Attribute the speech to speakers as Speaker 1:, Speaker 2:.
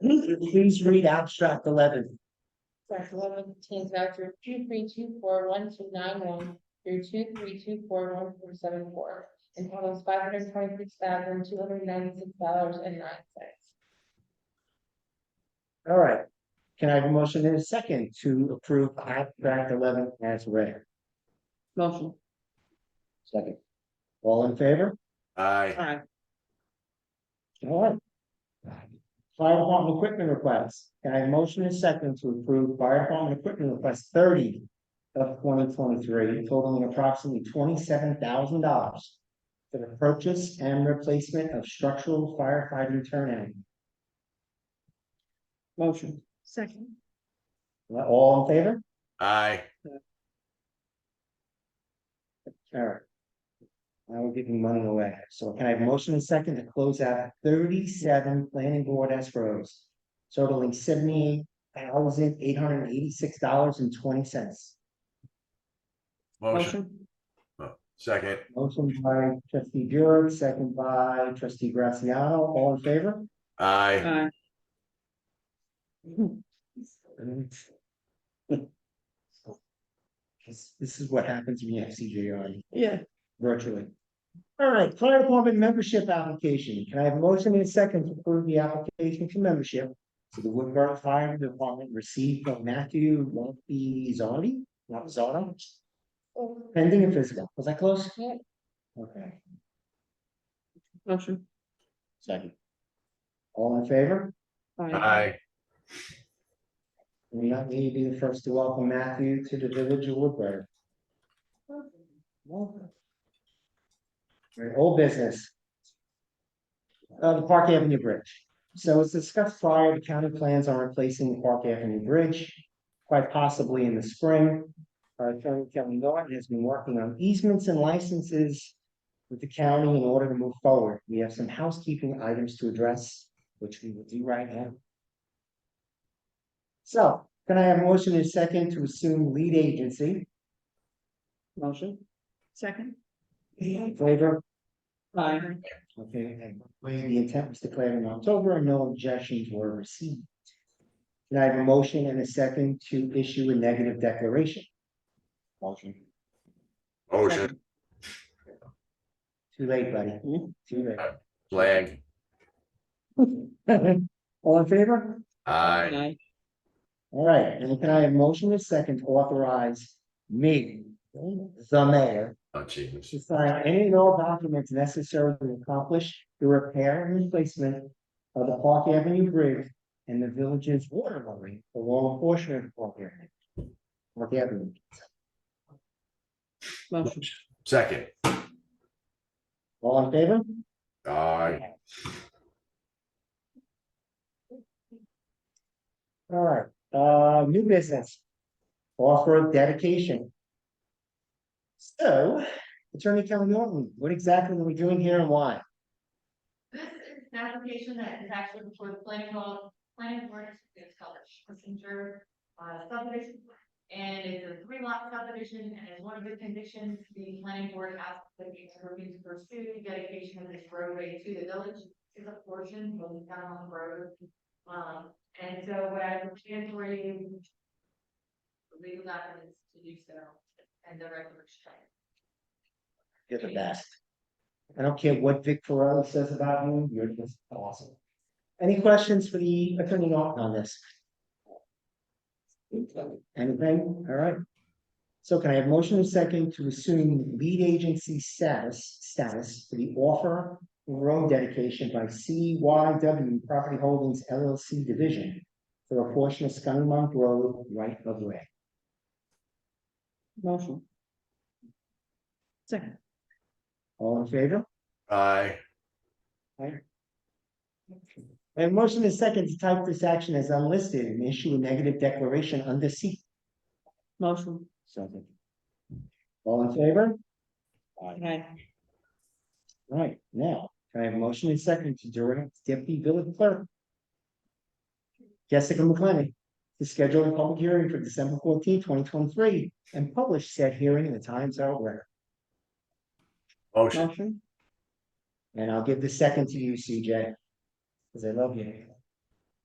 Speaker 1: Please read abstract eleven.
Speaker 2: Track eleven contains vouchers two three two four one two nine one through two three two four one four seven four. And totals five hundred twenty-six thousand two hundred ninety-six dollars and nine cents.
Speaker 1: All right. Can I have a motion in a second to approve abstract eleven as read?
Speaker 2: Motion.
Speaker 1: Second. All in favor?
Speaker 3: Aye.
Speaker 2: Aye.
Speaker 1: All right. Fire department equipment requests. Can I have a motion in a second to approve fire department equipment request thirty of twenty twenty-three totaling approximately twenty-seven thousand dollars for the purchase and replacement of structural fire hydrant turnout. Motion.
Speaker 2: Second.
Speaker 1: All in favor?
Speaker 3: Aye.
Speaker 1: All right. Now we're giving money away, so can I have a motion and second to close out thirty-seven planning board escrows? Totaling seventy-eight thousand eight hundred and eighty-six dollars and twenty cents.
Speaker 3: Motion. Oh, Second.
Speaker 1: Motion by trustee Burek, second by trustee Graziano, all in favor?
Speaker 3: Aye.
Speaker 1: This, this is what happens when you have CJR
Speaker 2: Yeah.
Speaker 1: virtually. All right, fire department membership application. Can I have a motion in a second to approve the application for membership? To the Woodburn Fire Department received from Matthew Lumpy Zondi, not Zono, pending and physical. Was that close?
Speaker 2: Yeah.
Speaker 1: Okay,
Speaker 2: Motion.
Speaker 1: second. All in favor?
Speaker 3: Aye.
Speaker 1: We don't need to be the first to welcome Matthew to the village of Woodburn. Welcome. All right, Old business. Uh, the Park Avenue Bridge. So as discussed prior, the county plans on replacing the Park Avenue Bridge, quite possibly in the spring. Our attorney Kevin Norton has been working on easements and licenses with the county in order to move forward. We have some housekeeping items to address, which we will do right now. So can I have a motion in second to assume lead agency?
Speaker 2: Motion. Second.
Speaker 1: In Favor?
Speaker 2: Aye.
Speaker 1: Okay, and when the intent was declared in October and no objections were received. Can I have a motion and a second to issue a negative declaration? Motion.
Speaker 3: Motion.
Speaker 1: Too late, buddy. Too
Speaker 3: Flag.
Speaker 1: late. All in favor?
Speaker 3: Aye.
Speaker 1: All right, and can I have a motion and a second to authorize me, the mayor,
Speaker 3: Oh, Jesus.
Speaker 1: to sign any and all documents necessary to accomplish the repair and replacement of the Park Avenue Bridge and the village's water line along a portion of the Park Avenue. Park Avenue.
Speaker 2: Motion.
Speaker 3: Second.
Speaker 1: All in favor?
Speaker 3: Aye.
Speaker 1: All right, uh, new business. Offer of dedication. So, Attorney Kelly Norton, what exactly are we doing here and why?
Speaker 4: This is an application that is actually before the planning board, planning board, it's called Kissinger uh, subdivision. And it's a three lot subdivision, and as one of the conditions, the planning board asked the community to pursue the dedication of this roadway to the village. Is a portion of the town on the road. Um, and so what I plan for you. Legal documents to do so, and the record check.
Speaker 1: You're the best. I don't care what Vic Ferraro says about you, you're just awesome. Any questions for the attorney Norton on this? Anything? All right. So can I have motion and second to assume lead agency status, status for the offer of road dedication by CYW Property Holdings LLC Division for a portion of Skyline Monk Road right of way?
Speaker 2: Motion. Second.
Speaker 1: All in favor?
Speaker 3: Aye.
Speaker 1: And motion is second to type this action as unlisted and issue a negative declaration under C.
Speaker 2: Motion.
Speaker 1: Second. All in favor?
Speaker 2: Aye.
Speaker 1: Right, now, can I have a motion and second to direct deputy village clerk. Jessica McLennan, to schedule a public hearing for December 14, twenty twenty-three, and publish said hearing in the Times Outlet.
Speaker 3: Motion.
Speaker 2: Motion.
Speaker 1: And I'll give the second to you, CJ. Cause I love you.